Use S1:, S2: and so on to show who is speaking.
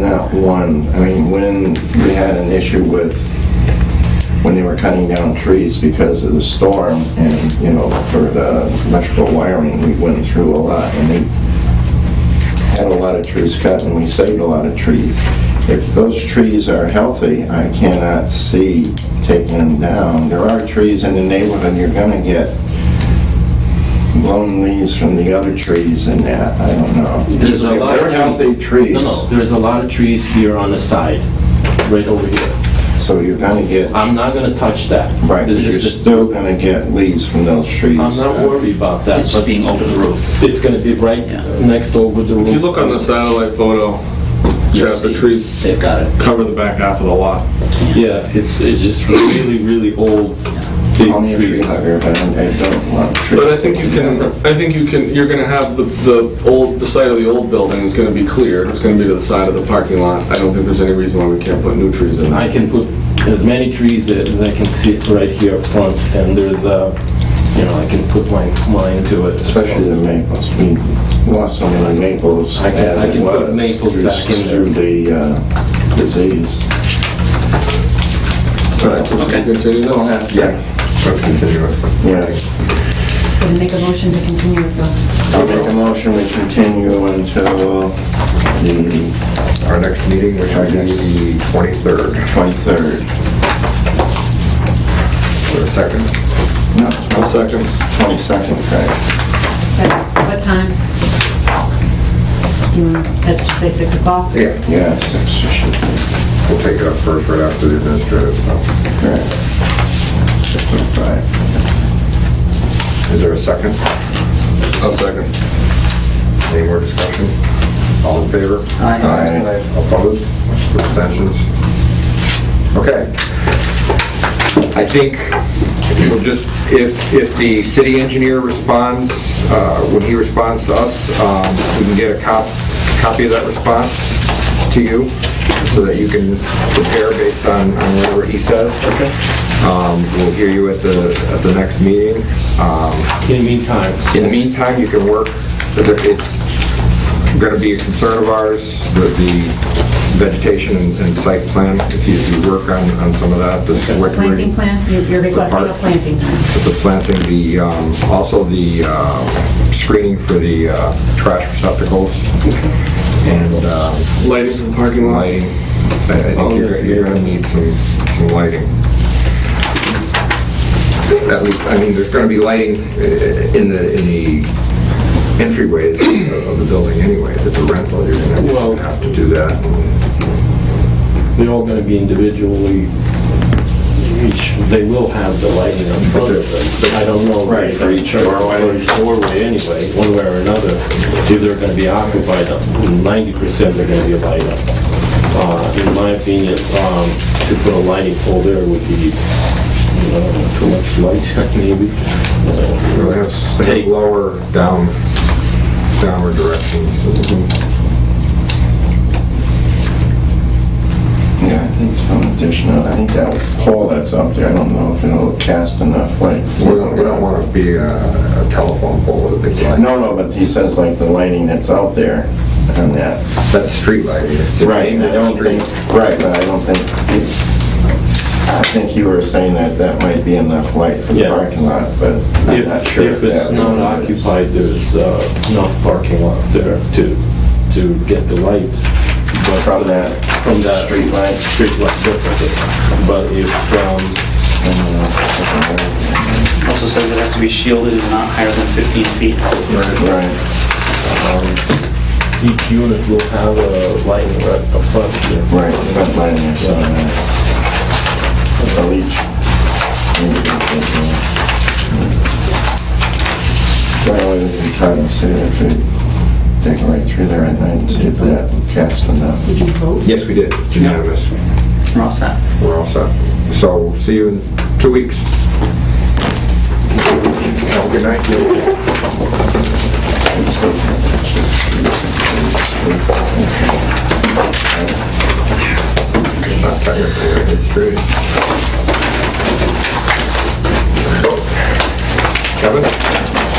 S1: not one, I mean, when we had an issue with, when they were cutting down trees because of the storm and, you know, for the electrical wiring, we went through a lot and they had a lot of trees cut and we saved a lot of trees. If those trees are healthy, I cannot see taking them down. There are trees in the neighborhood, you're gonna get blown leaves from the other trees and that, I don't know.
S2: There's a
S1: If
S2: lot of
S1: They're
S2: tree-
S1: healthy trees.
S2: No, no, there's a lot of trees here on the side, right over here.
S1: So you're gonna get,
S2: I'm not gonna touch that.
S1: right,
S2: There's
S1: you're
S2: Ah, just-
S1: still gonna get leaves from those trees.
S2: I'm not worried about that,
S3: It's
S2: but
S3: being over the roof.
S2: it's gonna be right
S3: Yeah.
S2: next over the roof.
S4: If you look on the satellite photo, Jeff, the trees
S3: They've got it.
S4: cover the back half of the lot.
S2: Yeah, it's, it's just really, really old, big
S1: Call me a tree
S2: tree.
S1: hugger, but I I don't want trees.
S4: But I think you can, I think you can, you're gonna have the, the old, the site of the old building is gonna be cleared. It's gonna be to the side of the parking lot. I don't think there's any reason why we can't put new trees in.
S2: I can put as many trees as I can fit right here up front, and there's a, you know, I can put my mind to it.
S1: Especially the maples, we lost so many maples
S2: I can-
S1: as
S2: I
S1: it
S2: can put
S1: was
S2: maples
S1: through-
S2: back in there.
S1: through the uh, disease.
S4: All right, so should we continue
S1: Don't
S4: this?
S1: have to- Yeah,
S5: Gonna make a motion to continue with the,
S1: I'll make a motion, we continue until the
S6: Our next meeting, which will be the 23rd,
S1: 23rd.
S6: or second.
S1: No,
S4: A second.
S1: 22nd, right?
S5: at what time? Do you want, to say 6 o'clock?
S6: Yeah,
S1: Yeah, six, it should be,
S6: we'll take it up first right after the administrative stuff.
S1: correct. 6:05.
S6: Is there a second?
S4: A second.
S6: Any more discussion? All in favor?
S1: Aye.
S6: Opposed? Abstentions? Okay. I think we'll just, if, if the city engineer responds, uh, when he responds to us, um, we can get a cop, copy of that response to you so that you can prepare based on, on whatever he says. Okay. Um, we'll hear you at the, at the next meeting. Um,
S2: In the meantime,
S6: in the meantime, you can work, it's going to be a concern of ours, the- the vegetation and and site plan, if you do work on, on some of that, this is what we're-
S5: Planting plan, You- you're requesting a planting plan.
S6: the planting, the, um, also the uh, screening for the uh, trash receptacles and um,
S4: Lighting for the parking lot. Oh,
S6: lighting. I I think you're you're going to need some, some lighting. At least, I mean, there's going to be lighting uh, in the, in the entryways of- of the building anyway. If it's a rental, you're
S2: Well-
S6: going to have to do that.
S2: they're all gonna be individually, each, they will have the lighting in front of them. I don't know.
S1: Right, for each doorway.
S2: For each doorway anyway, one way or another, if they're gonna be occupied, ninety percent they're gonna be light up. Uh, in my opinion, um, to put a lighting pole there would be, you know, too much light, maybe.
S6: They're gonna have- they have
S2: Take-
S6: lower down, downward directions.
S1: Yeah, I think some additional, I think that pole that's up there, I don't know if it'll cast enough light.
S6: We don't, we don't want to be a a telephone pole with a big light.
S1: No, no, but he says like the lighting that's out there and that.
S6: That's street lighting. It's-
S1: Right, I don't think, right, but I don't think, I think you were saying that that might be enough light for the
S2: Yeah.
S1: parking lot, but I'm not
S2: If,
S1: sure.
S2: if it's
S1: that
S2: not
S1: really is.
S2: occupied, there's uh, enough parking lot there to, to get the light. but,
S1: From
S2: uh,
S1: that
S2: From that.
S1: street light?
S2: Street light, definitely. But if, um,
S3: Also says it has to be shielded and not higher than 15 feet.
S1: Right,
S2: um, each unit will have a lighting right up front here.
S1: right, front lighting is on that. So each. Well, we can try to see if we take it right through there at night and see if that casts enough.
S5: Did you vote?
S6: Yes, we did. It's Unanimous.
S3: We're all set.
S6: We're all set. So see you in two weeks. Have a good night. Not technically, it's true. Kevin?